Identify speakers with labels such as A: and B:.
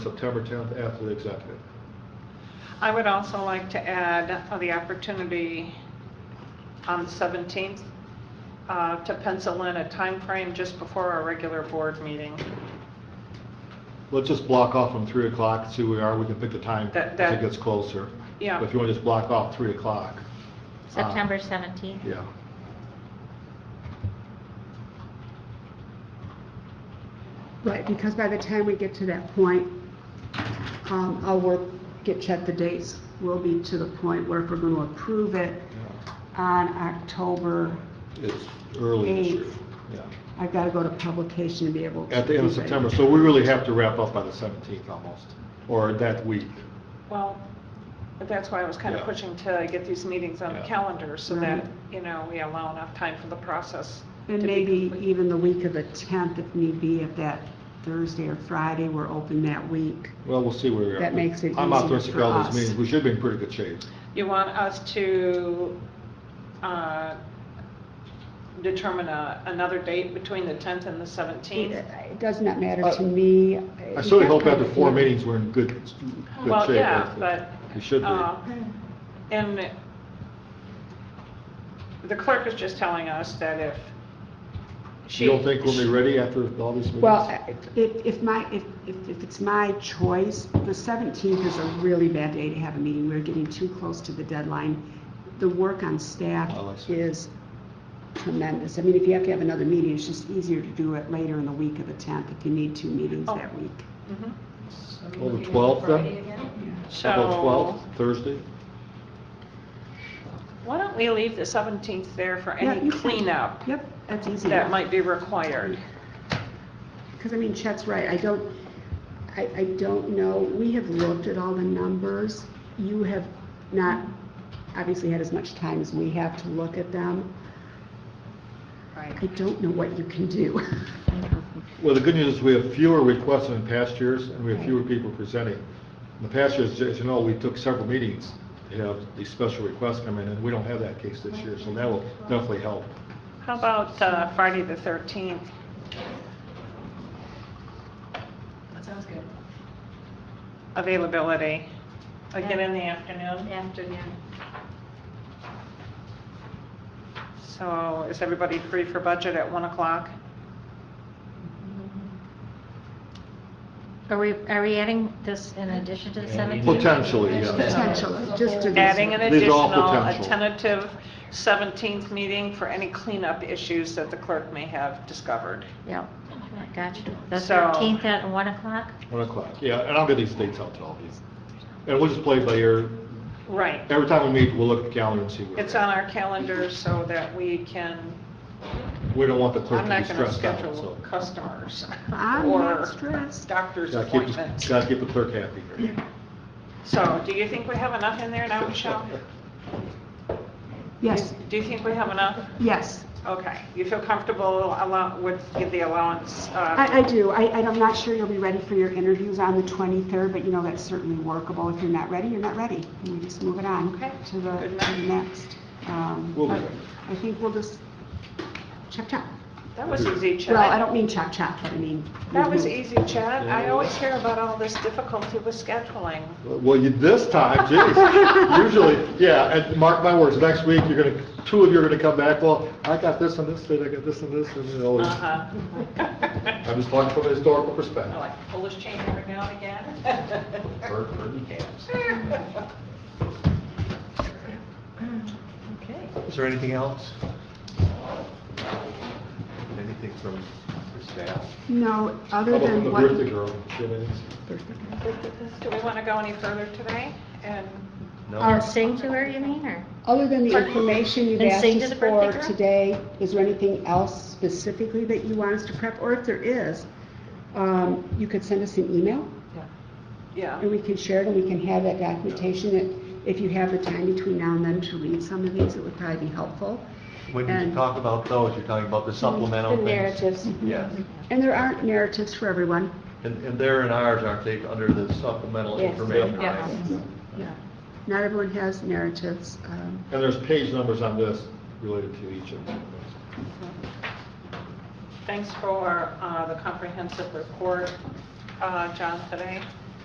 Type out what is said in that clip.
A: September 10th after the executive.
B: I would also like to add uh, the opportunity on the 17th uh, to pencil in a time frame just before our regular board meeting.
A: Let's just block off from 3 o'clock, see where we are, we can pick the time
B: That-
A: as it
B: that-
A: gets closer.
B: Yeah.
A: But If you want to just block off 3 o'clock,
C: September 17th.
A: Ah. yeah.
D: Right, because by the time we get to that point, um, I'll work, get, check the dates. We'll be to the point where if we're going to approve it on October,
A: It's early this year.
D: Eighth.
A: Yeah.
D: I've got to go to publication to be able to.
A: At the end of
D: do that.
A: September, so we really have to wrap up by the 17th almost, or that week.
B: Well, but that's why I was kind of
A: Yeah.
B: pushing to get these meetings on the
A: Yeah.
B: calendar so that,
D: Right.
B: you know, we allow enough time for the process.
D: And
B: to be
D: maybe e-
B: complete.
D: even the week of the 10th, if need be, if that Thursday or Friday, we're open that week.
A: Well, we'll see where we are.
D: That makes it
A: I'm
D: easier
A: optimistic
D: for
A: all these
D: us.
A: meetings, we should be in pretty good shape.
B: You want us to uh, determine a- another date between the 10th and the 17th?
D: It it does not matter
A: I-
D: to me.
A: Uh, I certainly hope after four meetings, we're in good, good shape.
B: Well, yeah,
A: hopefully.
B: but.
A: We should
B: uh,
A: be.
B: And the clerk is just telling us that if she.
A: You don't think we'll be ready after all these meetings?
D: Well, I- if, if my, if, if if it's my choice, the 17th is a really bad day to have a meeting. We're getting too close to the deadline. The work on staff
A: Oh, I see.
D: is tremendous. I mean, if you have to have another meeting, it's just easier to do it later in the week of the 10th if you need two meetings
B: Oh.
D: that week.
A: Mm-hmm.
B: Mhm.
A: Well, the 12th then? How About
B: So,
A: 12th, Thursday?
B: why don't we leave the 17th there for
D: Yeah,
B: any
D: you can-
B: cleanup
D: Yep, that's easy.
B: that might be required?
D: Because I mean, Chet's right, I don't, I, I don't know, we have looked at all the numbers. You have not, obviously had as much time as we have to look at them. I don't know what you can do.
A: Well, the good news is we have fewer requests than in past years, and we have fewer people presenting. In the past years, as you know, we took several meetings to have these special requests come in, and we don't have that case this year, so that will definitely help.
B: How about uh, Friday the 13th?
E: That sounds good.
B: Availability, again in the afternoon?
C: Afternoon.
B: So is everybody free for budget at 1 o'clock?
C: Are we, are we adding this in addition to the 17th?
A: Potentially, yeah.
D: Potentially, just to.
B: Adding an
A: These are all
B: additional, a
A: potential.
B: tentative 17th meeting for any cleanup issues that the clerk may have discovered.
C: Yep, gotcha. The
B: So-
C: 13th at 1 o'clock?
A: One o'clock, yeah, and I'll get these dates out to all of you. And we'll just play it by ear.
B: Right.
A: Every time we meet, we'll look at the calendar and see where.
B: It's on our calendar so that we can,
A: We don't want the clerk to
B: I'm
A: be
B: not going to
A: stressed out, so.
B: schedule customers
D: I'm
B: or
D: not stressed.
B: doctor's
A: Gotta keep,
B: appointments.
A: the- gotta keep the clerk happy.
B: So do you think we have enough in there now, Michelle?
D: Yes,
B: Do you think we have enough?
D: yes,
B: Okay. You feel comfortable allow- with the allowance? uh,
D: I, I do. I, I'm not sure you'll be ready for your interviews on the 23rd, but you know, that's certainly workable. If you're not ready, you're not ready. And we just move it on
B: Okay.
D: to the, to
B: Good
D: the next. Um,
A: We'll be
D: but
A: ready.
D: I think we'll just chop chop.
B: That was easy, Chad.
D: Well, I don't mean chop chop, but I mean.
B: That was
D: mhm.
B: easy, Chad. I always hear about all this difficulty with scheduling.
A: Well, you, this time, jeez, usually, yeah, and mark my words, next week, you're gonna, two of you are gonna come back, well, I got this and this, and I got this and this, and it always,
B: Uh-huh.
A: I'm just talking from a historical perspective.
B: Like Polish chain every now and again.
F: Bird, bird and calves.
C: Okay.
F: Is there anything else? Anything from the staff?
D: No,
A: How
D: other
A: about from
D: than
A: the
D: what.
A: birthday girl? She has-
B: Do we want to go any further today? And
F: No?
C: And sing to her, you mean, or?
D: Other than the information you've
C: And
D: asked
C: sing to
D: us
C: the birthday
D: for
C: girl?
D: today, is there anything else specifically that you want us to prep? Or if there is, um, you could send us an email,
B: Yeah,
D: and we can share it, and we can have that documentation. that If you have the time between now and then to read some of these, it would probably be helpful.
F: When you
D: And-
F: talk about those, you're talking about the
C: The
F: supplemental things?
C: narratives.
F: Yes.
D: And there aren't narratives for everyone.
F: And, and there and ours, aren't they, under the supplemental
D: Yes.
F: information?
B: Yeah.
F: right?
D: Yeah. Not everyone has narratives. um,
A: And there's page numbers on this related to each of them.
B: thanks for uh, the comprehensive report, uh, John, today.